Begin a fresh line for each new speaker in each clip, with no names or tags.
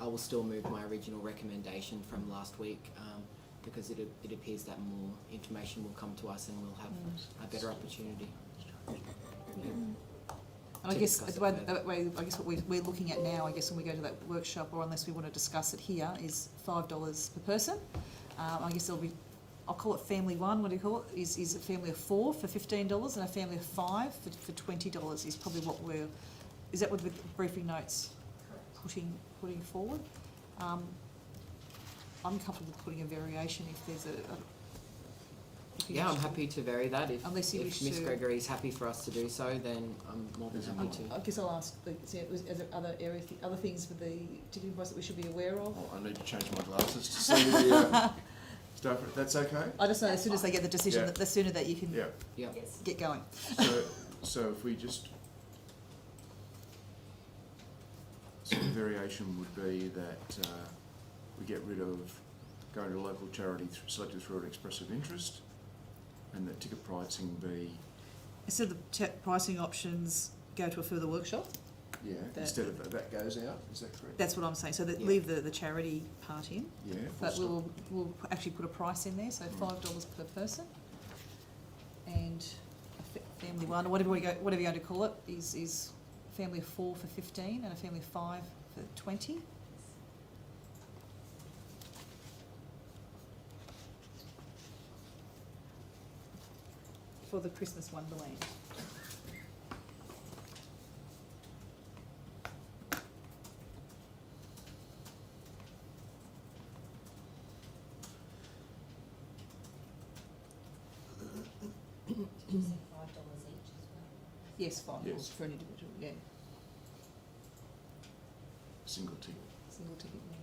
I will still move my original recommendation from last week um, because it, a- it appears that more information will come to us and we'll have a better opportunity.
And I
to
guess uh,
discuss
the way,
it further.
the way- I guess what we're, we're looking at now, I guess when we go to that workshop, or unless we want to discuss it here, is five dollars per person. Um, I guess there'll be, I'll call it family one. What do you call it? Is is a family of four for fifteen dollars, and a family of five for, for twenty dollars is probably what we're. Is that what the briefing notes putting putting forward? Um, I'm comfortable putting a variation if there's a. a if you
Yeah, I'm
wish to-
happy to vary that. If,
Unless you
if
wish
Miss
to-
Gregory is happy for us to do so, then I'm more than happy to.
Um, I guess I'll ask, is there, was, is there other area, other things for the ticketing price that we should be aware of?
Oh, I need to change my glasses to see the uh, stuff. That's okay.
I just know as soon as they get the decision,
Yeah.
that the sooner that you can
Yeah.
Yes.
get going.
So, so if we just, so the variation would be that uh, we get rid of going to local charity th- selected through an express of interest, and that ticket pricing be
Instead of the t- pricing options, go to a further workshop,
yeah
That-
instead of that, that goes out. Is that correct?
that's what I'm saying, so that,
Yeah.
leave the, the charity part in,
yeah. full
but
stop.
we'll, we'll actually put a price in there, so
Mm.
five dollars per person. And a fa- family one, or whatever we go, whatever you're going to call it, is, is family of four for fifteen and a family of five for twenty. for the Christmas Wonderland.
Five dollars each as well.
Yes, five
Yes.
dollars for an individual, yeah,
Single ticket.
single ticket. yeah.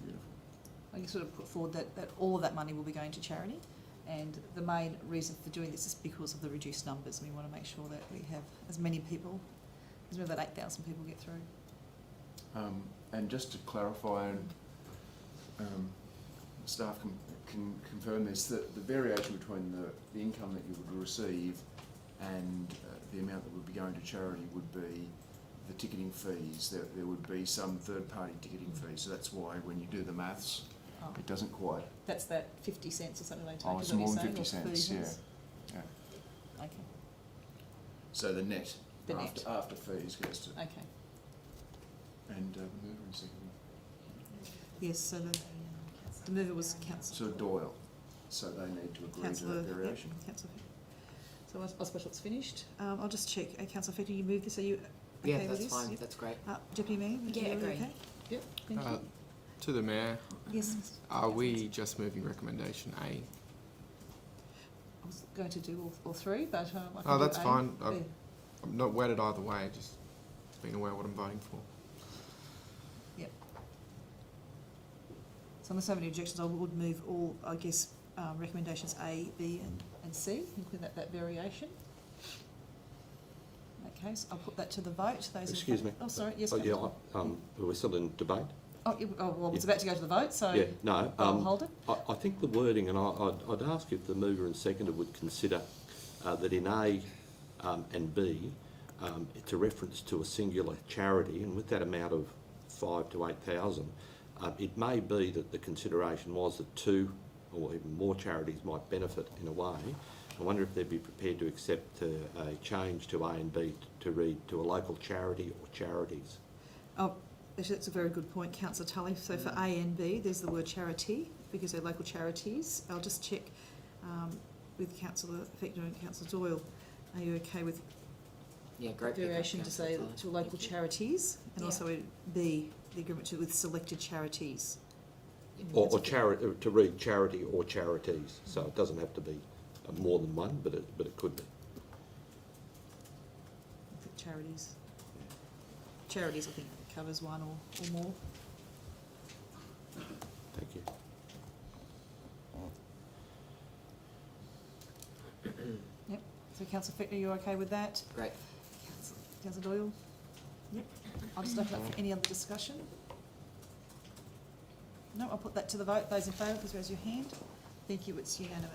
Beautiful.
I can sort of put forward that, that all of that money will be going to charity. And the main reason for doing this is because of the reduced numbers. We want to make sure that we have as many people, as many of that 8,000 people get through.
Um, and just to clarify, and um, staff can, can confirm this, that the variation between the, the income that you would receive and uh, the amount that would be going to charity would be the ticketing fees. There, there would be some third party ticketing fees. So that's why when you do the maths,
Oh,
it doesn't quite.
that's that 50 cents or something they take,
Oh,
is
it's
that what
more
you're
than
saying?
50
or 30
cents, yeah.
cents? Okay,
So the net
The
after,
net.
after fees goes to.
okay.
And uh, mover and seconder.
Yes, so the, the mover was Councillor
So Doyle. So they need to agree to
Councillor,
that variation.
yeah, Councillor Fick. So I, I suppose it's finished. Um, I'll just check. Uh, Councillor Fick, you moved this? Are you okay
Yeah,
with
that's
this?
fine.
Yep.
That's great.
Uh, Deputy Mayor?
Yeah,
you're
agree.
Okay? Yep, thank
Uh,
you.
To the mayor,
Yes.
are we just moving recommendation A?
I was going to do all, all three, but um, I can
Oh,
do
that's
A.
fine. I-
Yeah.
I'm not wedded either way, just being aware of what I'm voting for.
So unless I have any objections, I would move all, I guess, um, recommendations A, B and, and C, including that, that variation. In that case, I'll put that to the vote. Those in
Excuse
fa-
me.
Oh, sorry, yes.
Oh, yeah,
Councillor.
I- um, we're still in debate.
Oh, you- oh, well, it's
Yeah.
about to go to the vote, so
Yeah, no,
I'll
um,
hold it.
I, I think the wording, and I, I'd, I'd ask if the mover and seconder would consider, uh, that in A, um, and B, um, it's a reference to a singular charity, and with that amount of five to eight thousand, um, it may be that the consideration was that two or even more charities might benefit in a way. I wonder if they'd be prepared to accept uh, a change to A and B to read to a local charity or charities.
Oh, actually, that's a very good point, councillor Tully. So for A
Mm.
and B, there's the word charity, because they're local charities. I'll just check um, with councillor Fickner and councillor Doyle. Are you okay with
Yeah, great. pickup,
variation to say
Councillor Tyler.
to local
Thank you.
charities and
Yeah.
also also B, the agreement to, with selected charities.
Yeah.
Or, or charity, to read charity or charities, so it doesn't have to be uh, more than one, but it, but it could be.
I think Charities. Charities, I think, covers one or, or more.
Thank you.
So councillor Fickner, you're okay with that?
Great.
Councillor- Councillor Doyle? Yep. I'll just open up for any other discussion. No, I'll put that to the vote. Those in favour, please raise your hand. Thank you, it's unanimous.